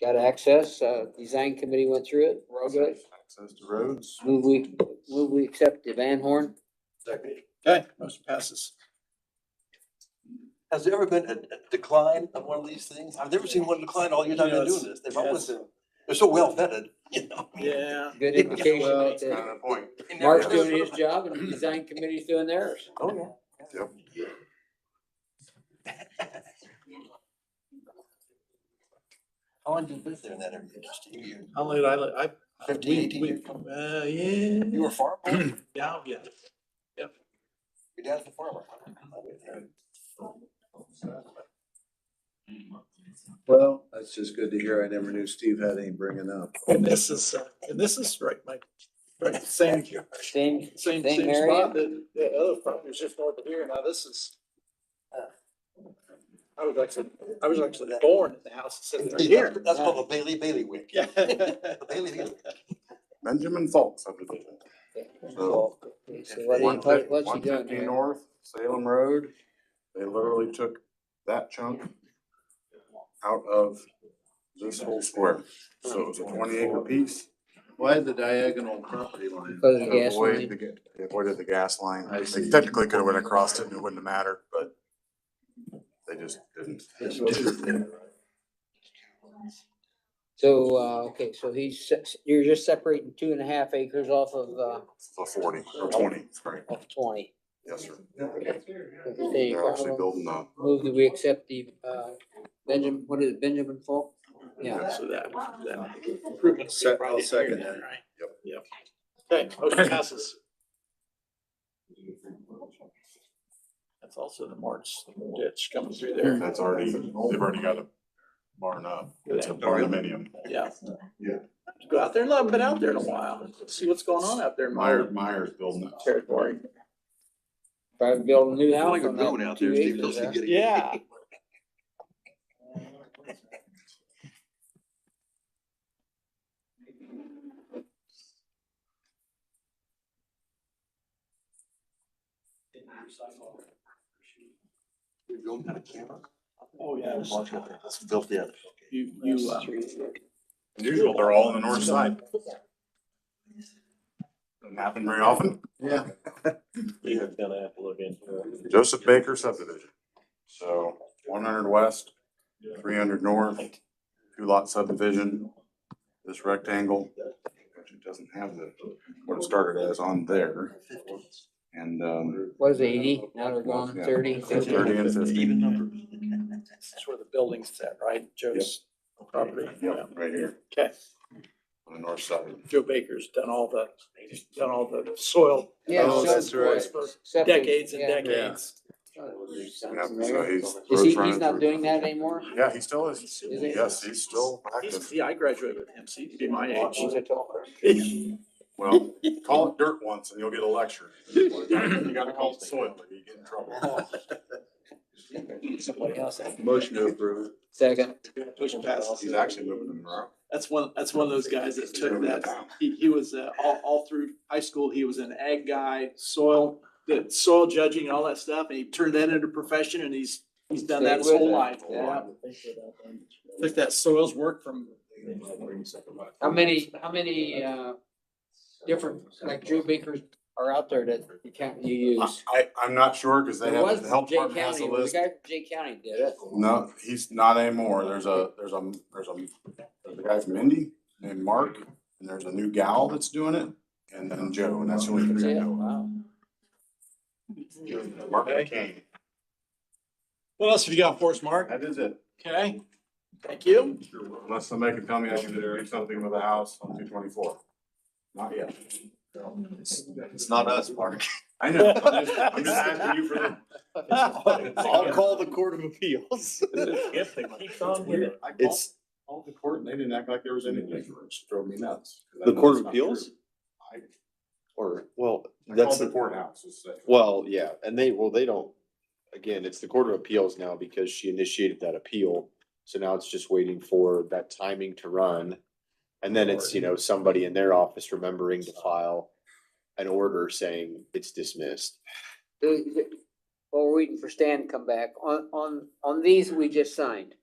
got access, uh, design committee went through it, we're all good. Access to roads. Move we, move we accept the Van Horn. Second. Okay, motion passes. Has there ever been a, a decline of one of these things? I've never seen one decline all your time you're doing this. They've always, Yes. they're so well vetted, you know? Yeah. Good Yeah, indication well, right That's kind there. of the point. They never- Mark's doing his job and the design committee's doing theirs. Oh, Yep. yeah. How long did you live there in that area? Just a year? How late I, li- I, Fifteen, we, eighteen we, years? uh, yeah. You were a farmer? Your Yeah, oh, yeah. dad's a farmer. Well, that's just good to hear. I never knew Steve had any bringing up. And this is, uh, and this is right, my, right, same, Thank you. Same, Same same, same area? spot that the other property was just north of here. Now this is. uh, I was actually, I was actually born in the house sitting right here. That's called a Bailey Bailiwick. Yeah. A Bailey Bailiwick. Benjamin Falk subdivision. So, so what he, what- what's he One doing fifty here? north, Salem Road, they literally took that chunk out of this whole square. So it was a twenty acre piece. Why the diagonal property line? Close the to gas avoid line. the ga- They avoided the gas line. I They see. technically could have went across it and it wouldn't have mattered, but they just didn't. So, uh, okay, so he's, se- you're just separating two and a half acres off of, uh, The forty or twenty, right? of twenty. Yes, sir. There you They're actually go. building a Move that we accept the, uh, Benjamin, what is it, Benjamin Falk? Yeah, So that, that improvement. Se- I'll second that. Yep. Yep. Okay, motion passes. That's also the March ditch coming through there. That's already, they've already got a barn up. It's a barnuminium. Yeah. Yeah. Go out there. and I haven't been out there in a while. See what's going on out there in Meyer, my Meyer's building it. territory. probably build a new house. Like a on that drone out two there, Steve. acres You'll see there. getting- Yeah. You're going down a camera? Oh, yeah. Watch out. That's filthy out. You, you, uh, Usual, they're all on the north side. Doesn't happen very often. Yeah. You're gonna have to look into it. Joseph Baker subdivision. So one hundred west, three hundred north, two lot subdivision. This rectangle, which it doesn't have the, what it started as on there. And, um, What is it, eighty? Now they're going Yeah. thirty, fifty. thirty and fifty. Even numbers. that's where the building's at, right? Joe's property. Yeah. Yep, right here Okay. on the north side. Joe Baker's done all the, he's done all the soil. Yeah, Oh, so- that's right. for septic, Decades and yeah. decades. Yep, so he's. Is he, road's running he's not through- doing that anymore? Yeah, he still is. Is he? Yes, he's still He's, active. yeah, I graduated with him, so he'd be my age. He's a tall Well, call it dirt once and you'll get a lecture. You gotta call it soil or you get in trouble. Somebody else. Motion to approve. Second. Motion passes. He's actually moving them around. That's one, that's one of those guys that took that, he, he was, uh, all, all through high school, he was an ag guy, soil, the soil judging and all that stuff, and he turned that into a profession and he's, he's done that his Stayed with whole it. life. Yeah. Took that soils work from, How many, how many, uh, different, like Drew Bakers are out there that you can't, you use? I, I'm not sure because they There was have, the health Jay department has a County, the list. guy from Jay County did it. No, he's not anymore. There's a, there's a, there's a, there's a guy from Indy named Mark and there's a new gal that's doing it. And then Joe, and that's the only That's three I it. know. Wow. of. Mark McCain. what else have you got for us, Mark? That is it. Okay, thank you. Unless somebody can tell me I can do something with a house on two twenty-four. Not yet. It's not us, Mark. I know. I'm just, I'm just asking you for the I'll call the Court of Appeals. If they keep on with it. I called- It's, called the court and they didn't act like there was anything, which drove me nuts. 'cause I The know Court it's of not true. Appeals? I or, well, I that's, called the the- courthouse. it's like- well, yeah, and they, well, they don't, again, it's the Court of Appeals now because she initiated that appeal. So now it's just waiting for that timing to run. And then it's, you know, somebody in their office remembering to file an order saying it's dismissed. The- the- While we're waiting for Stan to come back, on, on, on these we just signed.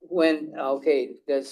When, okay, does